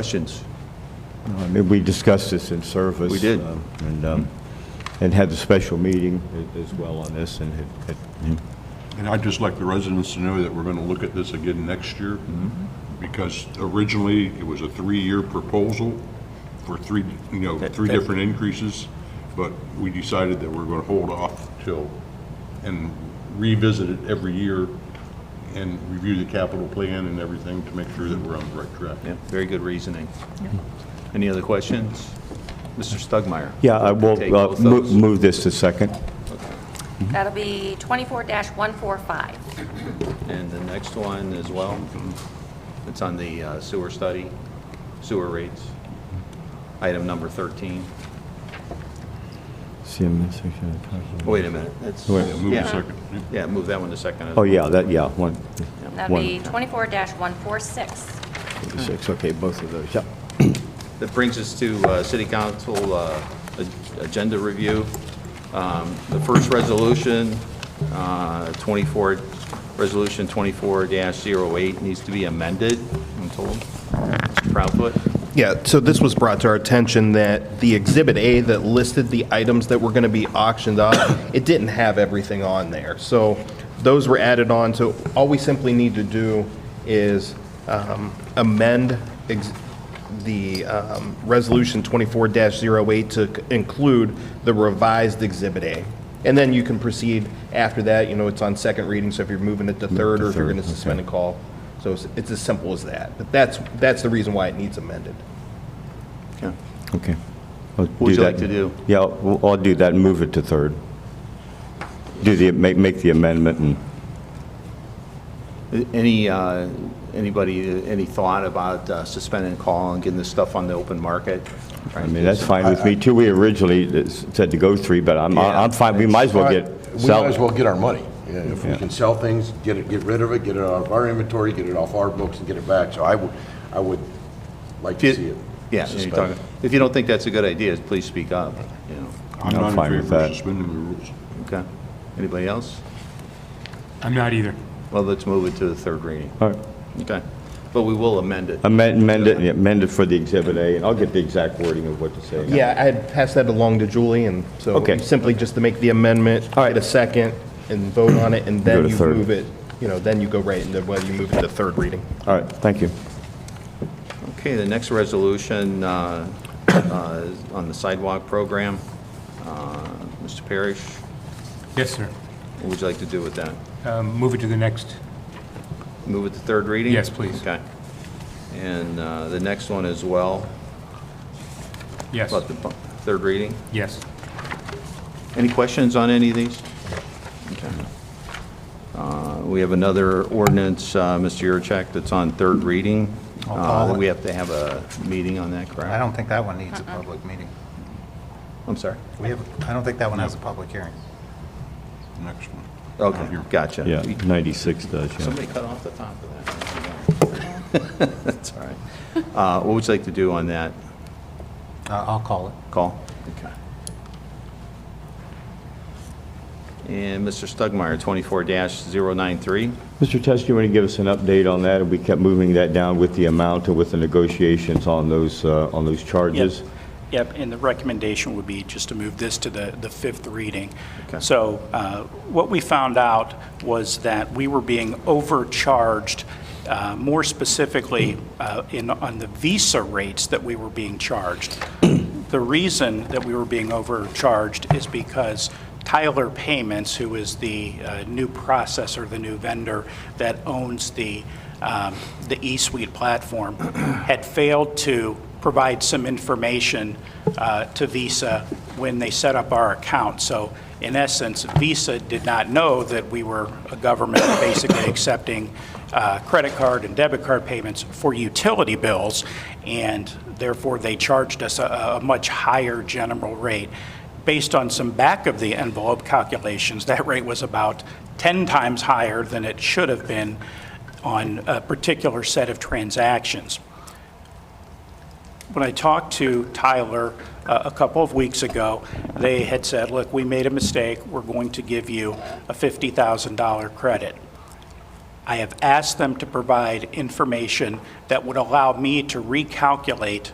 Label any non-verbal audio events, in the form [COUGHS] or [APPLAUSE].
Questions? I mean, we discussed this in service. We did. um, And, um, and had the special meeting a- as well on this, and it, it- And I'd just like the residents to know that we're going to look at this again next year, Mm-hmm. because originally, it was a three-year proposal for three, you know, three that- different increases, but we decided that we're going to hold off till, and revisit it every year, and review the capital plan and everything to make sure that we're on the right track. Yeah, very good reasoning. Any other questions? Mr. Stugmeyer? yeah, I will Take uh, both mo- those. move this to second. That'll be 24-145. And the next one as well. Mm-hmm. It's on the uh, sewer study, sewer rates. Item number 13. Oh, Wait a minute, that's... Wait. Yeah, Move to second. Yeah, move that one to second. as Oh, well. yeah, that, yeah, one, That'll One. be 24-146. six, okay, both of those, yeah. That brings us to uh, City Council uh, a- agenda review. Um, The first resolution, uh, 24, Resolution 24-08 needs to be amended, I'm told. Proudfoot? Yeah, so this was brought to our attention that the Exhibit A that listed the items that were going to be auctioned off, [COUGHS] it didn't have everything on there. So those were added on, so all we simply need to do is um, amend ex- the um, Resolution 24-08 to c- include the revised Exhibit A. And then you can proceed after that, you know, it's on second reading, so if you're moving it to third, or if you're going to suspend and call. So it's- it's as simple as that. But that's, that's the reason why it needs amended. Okay. What would you like to do? Yeah, I'll I'll do that and move it to third. Do the, make, make the amendment and, Any, uh, anybody, uh, any thought about uh, suspending call and getting this stuff on the open market? I mean, that's fine with me too. We originally uh, said to go three, but I'm, I'm fine, we might as well get, We sell might it. as well get our money. Yeah, If we can sell things, get it, get rid of it, get it out of our inventory, get it off our books and get it back. So I would, I would like to see it. Yeah, you're suspended. talking- if you don't think that's a good idea, please speak up, you know, I'm I'm not fine in with favor that. of suspending the rules. okay? Anybody else? I'm not either. Well, let's move it to the third reading, All right. okay? But we will amend it. Amend amend it, yeah, amend it for the Exhibit A, and I'll get the exact wording of what to say. Yeah, I had passed that along to Julie, and so Okay. simply just to make the amendment, get a second, and vote on it, and Go to then you third. move it, you know, then you go right into whether you move it to third reading. All right, thank you. Okay, the next resolution uh, uh, is on the sidewalk program, Uh, Mr. Parrish, Yes, sir. what would you like to do with that? Um, Move it to the next. Move it to third reading? Yes, please. Okay. And uh, the next one as well, Yes, about the bu- third reading. yes. Any questions on any of these? Okay. Uh, We have another ordinance, uh, Mr. Yurcheck, that's on third reading. I'll Uh, call it. We have to have a meeting on that, correct? I don't think that one needs a public meeting. I'm sorry. We have, I don't think that one has a public hearing. Next one. Okay, gotcha. Yeah, 96 does, yeah. Somebody cut off the top of that. [LAUGHS] That's all right. Uh, What would you like to do on that Uh, I'll call it. call? Okay. And Mr. Stugmeyer, 24-093. Mr. Test, you want to give us an update on that? We kept moving that down with the amount and with the negotiations on those, uh, on those Yep. charges. Yep, and the recommendation would be just to move this to the, the fifth reading. Okay. So uh, what we found out was that we were being overcharged, uh, more specifically, uh, in, on the Visa rates that we were being charged. The reason that we were being overcharged is because Tyler Payments, who is the uh, new processor, the new vendor that owns the, um, the eSuite platform, [CLEARS THROAT] had failed to provide some information uh, to Visa when they set up our account. So in essence, Visa did not know that we were a government [COUGHS] basically accepting uh, credit card and debit card payments for utility bills, and therefore they charged us a, a much higher general rate. Based on some back-of-the-envelope calculations, that rate was about 10 times higher than it should have been on a particular set of transactions when I talked to Tyler uh, a couple of weeks ago, they had said, look, we made a mistake, we're going to give you a $50,000 credit. I have asked them to provide information that would allow me to recalculate